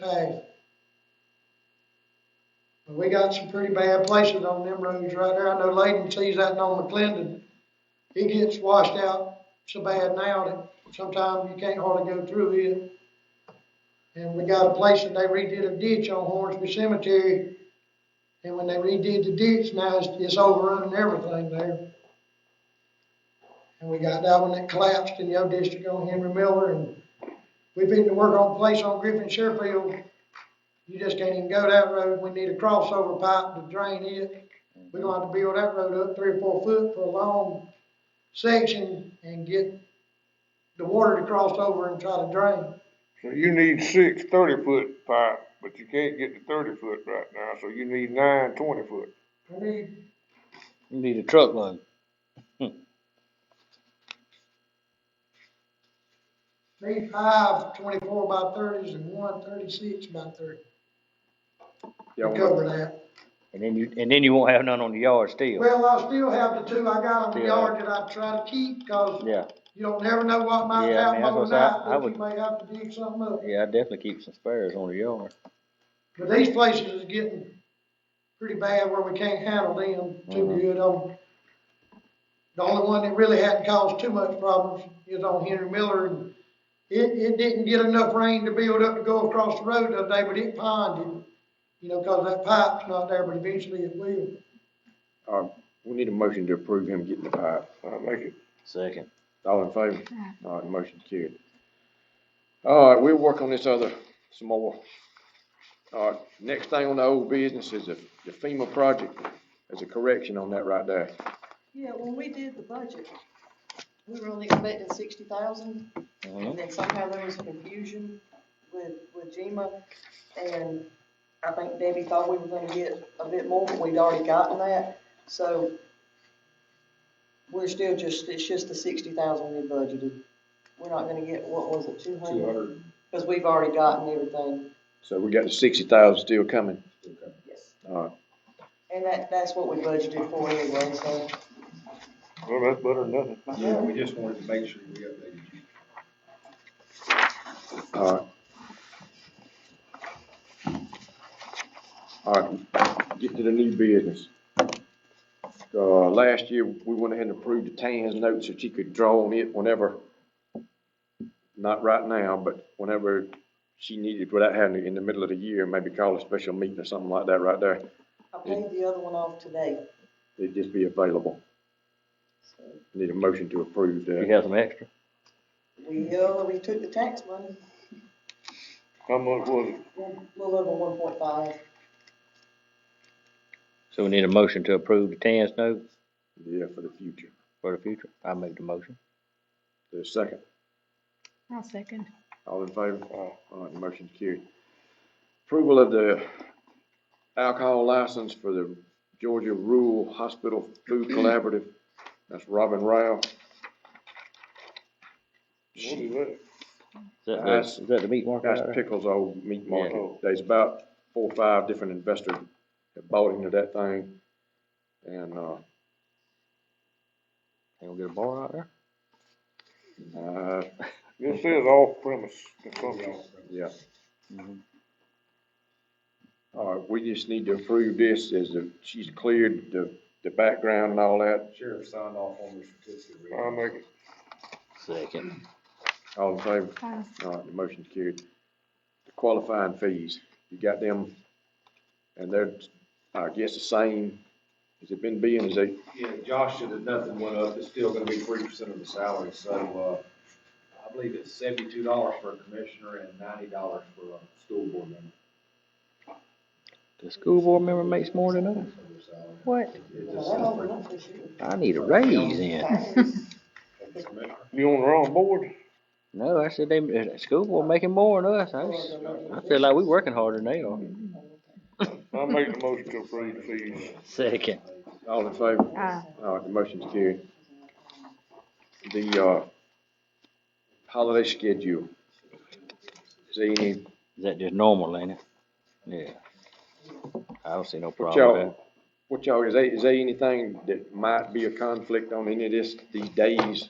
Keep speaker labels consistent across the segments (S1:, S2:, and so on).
S1: pay. But We got some pretty bad places on them roads right there. I know Layden sees that on McClendon. It gets washed out so bad now that sometimes you can't hardly go through it. And we got a place that they redid a ditch on Hornsby Cemetery. And when they redid the ditch, now it's, it's overrun and everything there. And we got that one that collapsed in your district on Henry Miller and We've been to work on a place on Griffin Sherfield. You just can't even go that road. We need a crossover pipe to drain it. We're gonna have to build that road up three or four foot for a long section and get the water to cross over and try to drain.
S2: So you need six thirty-foot pipe, but you can't get the thirty-foot right now, so you need nine twenty-foot.
S1: We need,
S3: You need a truckload.
S1: need five twenty-four by thirties and one thirty-six by thirty to cover that.
S3: And then you, and then you won't have none on the yard still.
S1: Well, I still have the two I got on the
S3: Yeah.
S1: yard that I try to keep, cause
S3: Yeah,
S1: you don't never know what might
S3: Yeah, I mean,
S1: happen
S3: that's what I- I
S1: overnight, but you
S3: would-
S1: may have to dig something up.
S3: yeah, I definitely keep some spares on the yard.
S1: But these places is getting pretty bad where we can't handle them too
S3: Mhm.
S1: good. Um, The only one that really hadn't caused too much problems is on Henry Miller. and It, it didn't get enough rain to build up to go across the road the other day, but it ponded. You know, cause that pipe's not there, but eventually it will.
S4: Uh, we need a motion to approve him getting the pipe.
S2: I make it,
S3: Second.
S4: All in favor? All right, motion carried. All right, we'll work on this other some more. All right, next thing on the old business is the the FEMA project. There's a correction on that right there.
S5: Yeah, when we did the budget, we were only expecting sixty thousand,
S3: Mhm.
S5: and then somehow there was confusion with, with GMA, and I think Debbie thought we were gonna get a bit more, but we'd already gotten that, so we're still just, it's just the sixty thousand we budgeted. We're not gonna get, what was it, two hundred? Cause we've already gotten everything,
S4: So we got the sixty thousand still coming.
S5: yes,
S4: All right,
S5: and that, that's what we budgeted for anyway, so.
S2: well, that's better than nothing.
S6: Yeah, we just wanted to make sure we updated you.
S4: all right. All right, get to the new business. Uh, last year, we went ahead and approved the Tan's notes that you could draw on it whenever, not right now, but whenever she needed, without having, to in the middle of the year, maybe call a special meeting or something like that right there,
S5: I paid the other one off today,
S4: it'd just be available.
S5: so.
S4: Need a motion to approve that.
S3: You have some extra?
S5: We, uh, we took the tax money,
S2: How much was it?
S5: a little over one point five.
S3: So we need a motion to approve the TAN's note
S4: Yeah, for the future.
S3: for the future. I make the motion.
S4: There's a second.
S7: I'll second.
S4: All in favor? All right, motion carried. Approval of the alcohol license for the Georgia Rural Hospital Food Collaborative. That's Robin Rao.
S2: What is that?
S3: Is that the,
S4: That's-
S3: is that the meat market?
S4: That's
S3: out there?
S4: Pickles Old Meat
S2: Yeah.
S4: Market. There's about four or five different investors that bought into that thing. And, uh,
S3: They gonna get a bar out there?
S4: uh,
S2: It says off premise consumption.
S4: yeah. Mm-hmm.
S3: Mhm.
S4: All right, we just need to approve this as the, she's cleared the, the background and all that.
S6: Sheriff signed off on the certificate. of
S2: I make it,
S3: Second.
S4: All in favor?
S7: I'll
S4: All right, the motion's carried. The Qualifying fees, you got them, and they're, I guess, the same, has it been being, is they,
S6: Yeah, Josh said that nothing went up, it's still gonna be three percent of the salary, so, uh, I believe it's seventy-two dollars for a commissioner and ninety dollars for a school board member.
S3: The school board member makes more than us.
S6: for their salary.
S7: What?
S6: It
S5: Well,
S6: just
S5: that
S6: sounds
S5: over
S6: like
S5: up this year.
S3: I need a raise then.
S6: for the commissioner.
S2: you on the wrong board?
S3: No, I said they, the school board making more than us. I, s- I feel like we working harder than they are.
S2: I make the motion to approve fees.
S3: Second.
S4: all in favor?
S7: Aye.
S4: All right, the motion's carried. The, uh, holiday schedule, is there any,
S3: Is that just normal, ain't it? Yeah. I don't see no
S4: what
S3: problem with that.
S4: y'all, what y'all, is there, is there anything that might be a conflict on any of this, these days,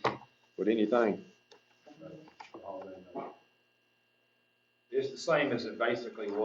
S4: with anything?
S6: Holiday night.
S4: it's the same as it basically was.